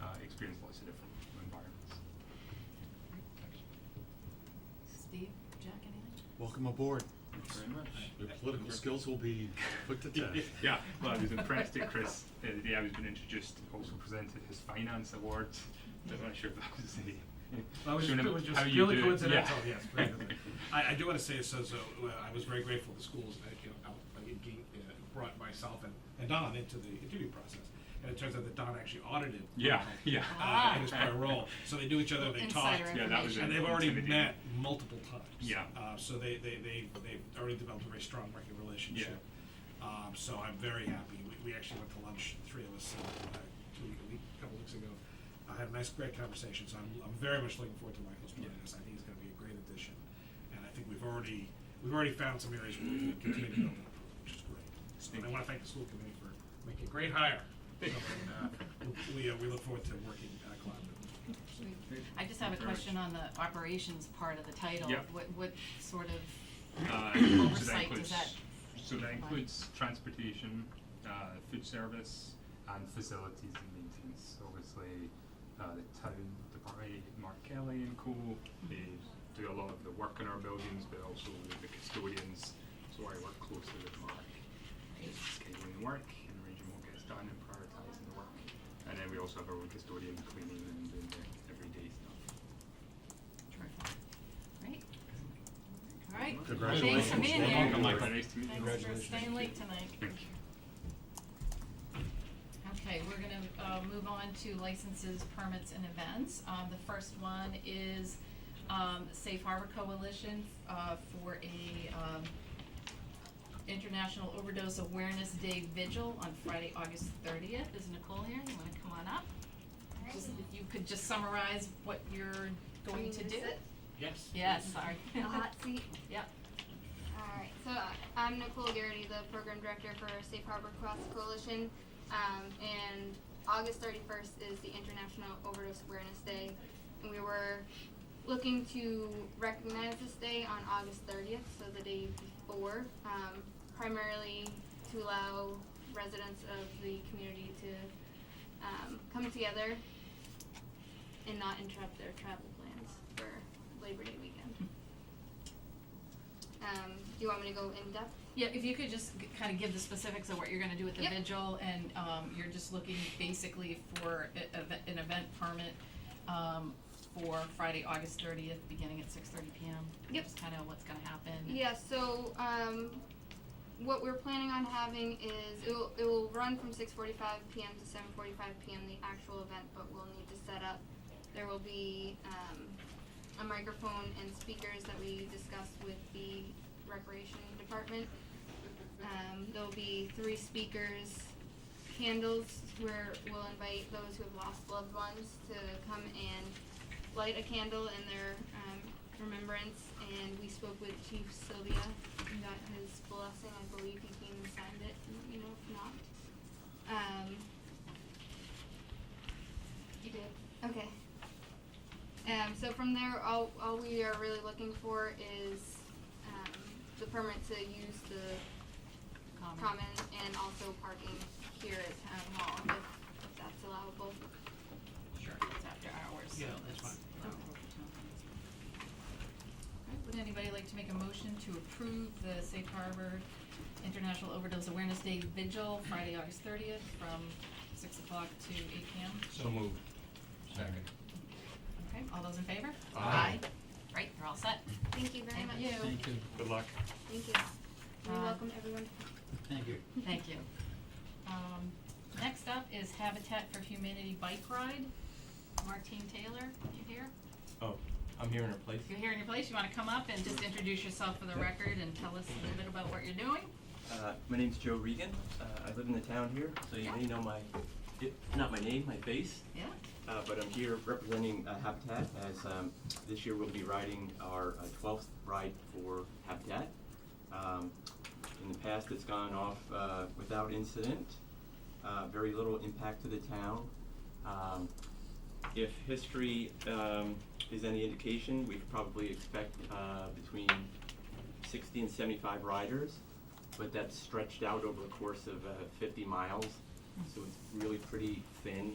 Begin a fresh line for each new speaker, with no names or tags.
uh, experience lots of different environments.
Steve, Jack, anything?
Welcome aboard.
Thanks very much.
Your political skills will be put to test.
yeah, well, I was impressed that Chris, uh, the day I was being introduced, also presented his finance awards. I'm not sure if that was the.
That was,
showing him
it was just
how you
purely
do it.
coincidental,
Yeah.
yes. purely coincidental. I, I do want to say, so, so uh, I was very grateful to schools that, you know, out- uh, it ge- uh, brought myself and, and Don into the interview process. And it turns out that Don actually audited.
Yeah, yeah.
Uh, in his prior role. So they knew each other, they talked.
Insider
Yeah, that was
information.
And they've already
Intimidating.
met multiple times.
Yeah.
Uh, so they, they, they, they've already developed a very strong working relationship. Um, so I'm very happy. We, we actually went to lunch, the three of us, uh, two, week- a week, a couple weeks ago. I had a nice, great conversation, so I'm, I'm very much looking forward to Michael's joining us. I think he's gonna be a great addition. And I think we've already, we've already found some areas where we can continue to build on, which is great. So and I wanna thank the school committee for making a great hire. So, uh, We, uh, we look forward to working uh, collaboratively.
I just have a
Very much.
question on the operations part of the title.
Yeah.
What, what sort of,
Uh, so that
Oversight,
includes,
does that-
so that includes transportation, uh, food service, and facilities and maintenance. Obviously, uh, the town department, Mark Kelly and co,
Mm-hmm.
they do a lot of the work in our buildings, but also the custodians. So I work closely with Mark, just scheduling the work and arranging what gets done and prioritising the work. And then we also have our own custodian cleaning and doing the everyday stuff.
terrific. Great. All right.
Congratulations.
Thanks for being
Welcome,
there.
Welcome, Michael. Nice to meet you.
Thanks for staying late tonight.
Thank you.
Okay, we're gonna, uh, move on to licenses, permits, and events. Um, the first one is, um, Safe Harbor Coalition, uh, for a, um, International Overdose Awareness Day Vigil on Friday, August thirtieth. Is Nicole here? You wanna come on up? Just, if you could just summarize what you're going to
Can you
do.
sit?
Yes.
Yes, sorry.
hot seat.
Yep.
Alright, so uh, I'm Nicole Garrity, the program director for Safe Harbor Cross Coalition. Um, and August 31st is the International Overdose Awareness Day. And we were looking to recognize this day on August 30th, so the day before, um, primarily to allow residents of the community to um, come together and not interrupt their travel plans for Labor Day weekend. Um, do you want me to go in depth?
Yeah, if you could just g- kind of give the specifics of what you're gonna do with the
Yep.
vigil, and, um, you're just looking basically for e- eve- an event permit, um, for Friday, August thirtieth, beginning at six thirty PM.
Yep.
Just kind of what's gonna happen.
Yeah, so um, what we're planning on having is it will, it will run from 6:45 p.m. to 7:45 p.m. the actual event, but we'll need to set up. There will be um, a microphone and speakers that we discussed with the recreation department. Um, there'll be three speakers, candles where we'll invite those who have lost loved ones to come and light a candle in their um, remembrance. And we spoke with Chief Sylvia and got his blessing. I believe he came and signed it. and, You know, if not, um, you did. Okay. Um, so from there, all, all we are really looking for is um, the permit to use the
Common.
common and also parking here at town hall if, if that's allowable.
Sure, it's after hours, so
Yeah,
that's.
that's fine.
okay. Alright, would anybody like to make a motion to approve the Safe Harbor International Overdose Awareness Day Vigil, Friday, August thirtieth, from six o'clock to eight PM?
So moved. Second.
Okay, all those in favor?
Aye.
Great, you're all set.
Thank you very
Thank
much.
you.
Thank you,
Good luck.
Thank you. We
Um,
welcome everyone to come.
thank you.
Thank you. Um, next up is Habitat for Humanity Bike Ride. Martine Taylor, you here?
Oh, I'm here in her place.
If you're here in your place, you wanna come up and just introduce yourself for the record and tell us a little bit about what you're doing?
Uh, my name's Joe Regan. Uh, I live in the town here, so you may know my, it, not my name, my face.
Yeah?
Uh, but I'm here representing uh, Habitat as um, this year we'll be riding our uh, 12th ride for Habitat. Um, in the past, it's gone off uh, without incident, uh, very little impact to the town. Um, if history um, is any indication, we could probably expect uh, between 60 and 75 riders, but that's stretched out over a course of uh, 50 miles, so it's really pretty thin.